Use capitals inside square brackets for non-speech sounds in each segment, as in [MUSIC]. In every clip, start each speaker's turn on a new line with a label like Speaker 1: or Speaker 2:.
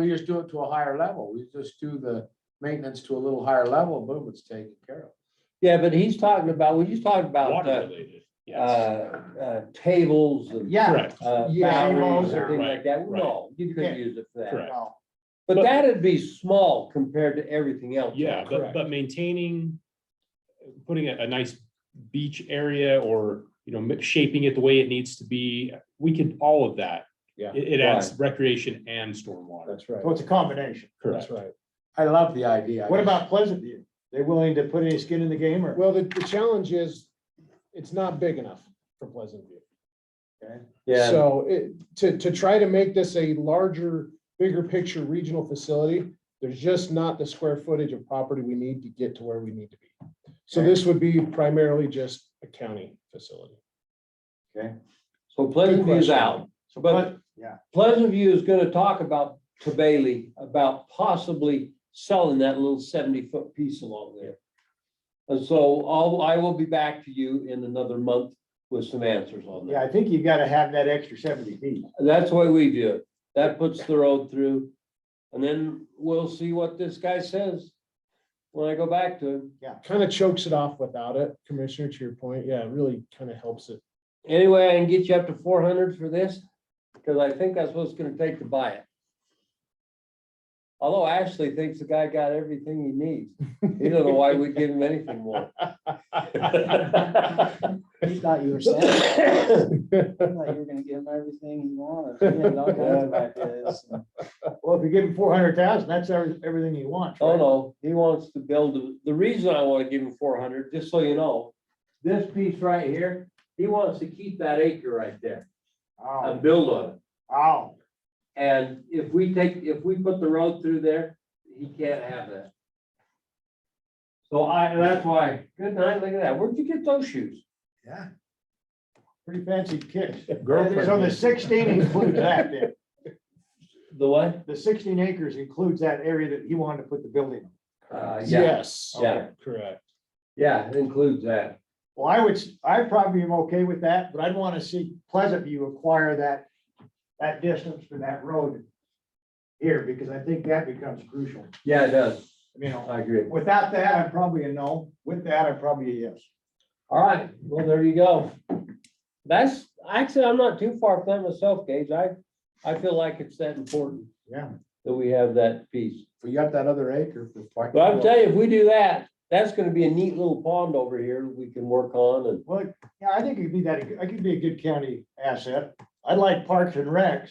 Speaker 1: We just do it to a higher level. We just do the maintenance to a little higher level, boom, it's taken care of.
Speaker 2: Yeah, but he's talking about, well, he's talking about,
Speaker 3: Water
Speaker 2: uh,
Speaker 3: related,
Speaker 2: uh,
Speaker 3: yes.
Speaker 2: uh, tables and.
Speaker 4: Yeah.
Speaker 3: Correct,
Speaker 2: Uh,
Speaker 4: Yeah,
Speaker 2: batteries
Speaker 4: tables
Speaker 2: and
Speaker 4: or-
Speaker 2: things like that.
Speaker 3: right.
Speaker 2: No, you
Speaker 4: Yeah.
Speaker 2: could use it for that.
Speaker 3: Correct.
Speaker 4: no,
Speaker 2: But
Speaker 3: But-
Speaker 2: that'd be small compared to everything else.
Speaker 3: yeah, but,
Speaker 4: correct.
Speaker 3: but maintaining, putting a, a nice beach area or, you know, mi- shaping it the way it needs to be, we could, all of that.
Speaker 1: Yeah.
Speaker 3: It, it adds recreation and stormwater,
Speaker 5: That's right.
Speaker 4: So it's a combination.
Speaker 3: correct?
Speaker 5: That's right.
Speaker 1: I love the idea. I
Speaker 4: What
Speaker 1: just-
Speaker 4: about Pleasant View? They willing to put any skin in the game or?
Speaker 5: Well, the, the challenge is, it's not big enough for Pleasant View.
Speaker 2: Yeah,
Speaker 5: So it, to, to try to make this a larger, bigger picture regional facility, there's just not the square footage of property we need to get to where we need to be. So this would be primarily just a county facility.
Speaker 2: so Pleasant View's
Speaker 5: question.
Speaker 2: out,
Speaker 4: So,
Speaker 2: but-
Speaker 4: yeah,
Speaker 2: Pleasant View is gonna talk about, to Bailey, about possibly selling that little seventy-foot piece along there. And so I'll, I will be back to you in another month with some answers on
Speaker 4: yeah,
Speaker 2: that.
Speaker 4: I think you gotta have that extra seventy feet.
Speaker 2: And That's the way we do it. That puts the road through. And then we'll see what this guy says when I go back to him.
Speaker 5: Kind of chokes it off without it, Commissioner, to your point. Yeah, it really kind of helps it.
Speaker 2: Anyway, I can get you up to four hundred for this, because I think that's what it's gonna take to buy it. Although Ashley thinks the guy got everything he needs. He don't know why we'd give him anything more.
Speaker 6: He thought you were saying, he thought you were gonna give him everything he wanted. He had all kinds of ideas.
Speaker 4: Well, if you give him four hundred thousand, that's every- everything he wants.
Speaker 2: Oh,
Speaker 4: right?
Speaker 2: no, he wants to build, a- the reason I wanna give him four hundred, just so you know, this piece right here, he wants to keep that acre right there and
Speaker 4: Oh,
Speaker 2: build on it.
Speaker 4: oh,
Speaker 2: And if we take, if we put the road through there, he can't have that. So I, and that's why, good night, look at that, where'd you get those shoes?
Speaker 1: Yeah.
Speaker 4: pretty fancy kicks.
Speaker 2: [LAUGHS]
Speaker 1: Girlfriend.
Speaker 4: So the sixteen includes that then.
Speaker 2: The what?
Speaker 4: The sixteen acres includes that area that he wanted to put the building. on.
Speaker 2: Uh, yeah,
Speaker 5: Yes,
Speaker 2: Yeah.
Speaker 4: Okay.
Speaker 5: correct.
Speaker 2: yeah, it includes that.
Speaker 4: Well, I would, s- I probably am okay with that, but I'd want to see Pleasant View acquire that, that distance for that road here, because I think that becomes crucial,
Speaker 2: Yeah, it does,
Speaker 4: you know.
Speaker 2: I agree.
Speaker 4: Without that, I'm probably a no. With that, I'm probably a yes.
Speaker 2: All right, well, there you go. That's, actually, I'm not too far from myself, Gage, I, I feel like it's that important
Speaker 4: Yeah.
Speaker 2: that we have that piece.
Speaker 1: We got that other acre for. fight-
Speaker 2: But I'm telling you, if we do that, that's gonna be a neat little pond over here we can work on and
Speaker 4: Well, yeah, I think it'd be that, I could be a good county asset. I'd like Parks and Recs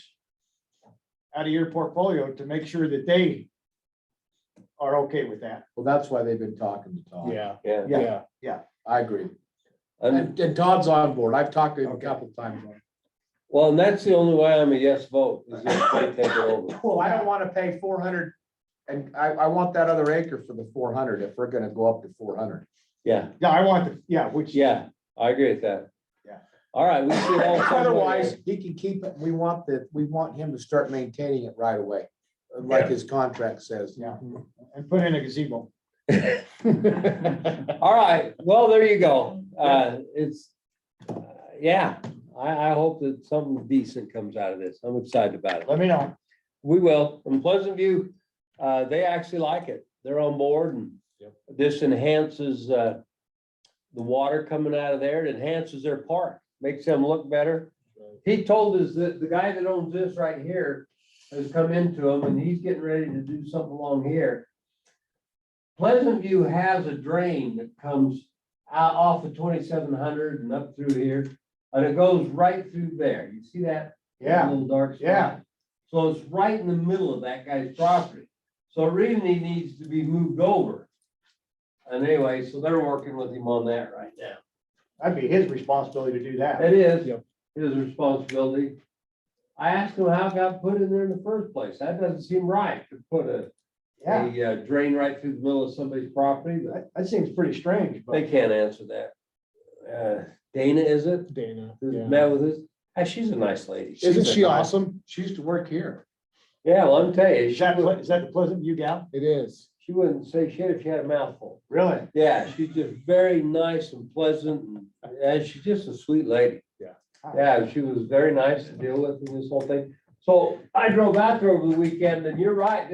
Speaker 4: out of your portfolio to make sure that they are okay with that.
Speaker 1: Well, that's why they've been talking to Todd.
Speaker 5: Yeah,
Speaker 2: Yeah.
Speaker 5: yeah.
Speaker 1: I agree.
Speaker 2: And,
Speaker 1: And and Todd's on board. I've talked to him a couple times.
Speaker 2: well, and that's the only way I'm a yes vote, is if they take it over.
Speaker 1: [LAUGHS] Well, I don't want to pay four hundred and I, I want that other acre for the four hundred if we're going to go up to four hundred.
Speaker 2: Yeah,
Speaker 4: Yeah, I want the, yeah, which.
Speaker 2: yeah, I agree with that.
Speaker 4: Yeah.
Speaker 2: All right, we should
Speaker 1: [LAUGHS]
Speaker 2: all.
Speaker 1: Otherwise, he can keep it. We want the, we want him to start maintaining it right away, like his contract says.
Speaker 4: Yeah, and put in a gazebo.
Speaker 2: All right, well, there you go. Uh, it's, uh, yeah, I, I hope that something decent comes out of this. I'm excited about it.
Speaker 4: Let me know.
Speaker 2: We will. In Pleasant View, uh, they actually like it. They're on board and
Speaker 5: Yep.
Speaker 2: this enhances, uh, the water coming out of there. It enhances their park, makes them look better. He told us that the guy that owns this right here has come into him and he's getting ready to do something along here. Pleasant View has a drain that comes out off of twenty-seven hundred and up through here. And it goes right through there. You see that?
Speaker 4: Yeah,
Speaker 2: Little dark. spot?
Speaker 4: yeah.
Speaker 2: So it's right in the middle of that guy's property. So it really needs to be moved over. And anyway, so they're working with him on that right now.
Speaker 4: that'd be his responsibility to do that.
Speaker 2: It is
Speaker 5: Yep.
Speaker 2: his responsibility. I asked him how it got put in there in the first place. That doesn't seem right to put a,
Speaker 4: Yeah,
Speaker 2: a uh, drain right through the middle of somebody's property, but
Speaker 4: that, that seems pretty strange,
Speaker 2: they
Speaker 4: but
Speaker 2: can't answer that. Uh, Dana, is it?
Speaker 5: Dana,
Speaker 2: Who's
Speaker 5: yeah.
Speaker 2: Met with us? Ah, she's a nice lady.
Speaker 5: Isn't
Speaker 2: She's a
Speaker 5: she
Speaker 2: nice-
Speaker 5: awesome?
Speaker 1: She used to work here.
Speaker 2: Yeah, well, I'm telling you,
Speaker 4: is
Speaker 2: she
Speaker 4: that,
Speaker 2: wouldn't,
Speaker 4: is that the Pleasant View gal?
Speaker 5: It is.
Speaker 2: she wouldn't say shit if she had a mouthful.
Speaker 4: Really?
Speaker 2: Yeah, she's just very nice and pleasant, and- and she's just a sweet lady.
Speaker 5: Yeah.
Speaker 2: Yeah, she was very nice to deal with in this whole thing. So I drove out there over the weekend and you're right,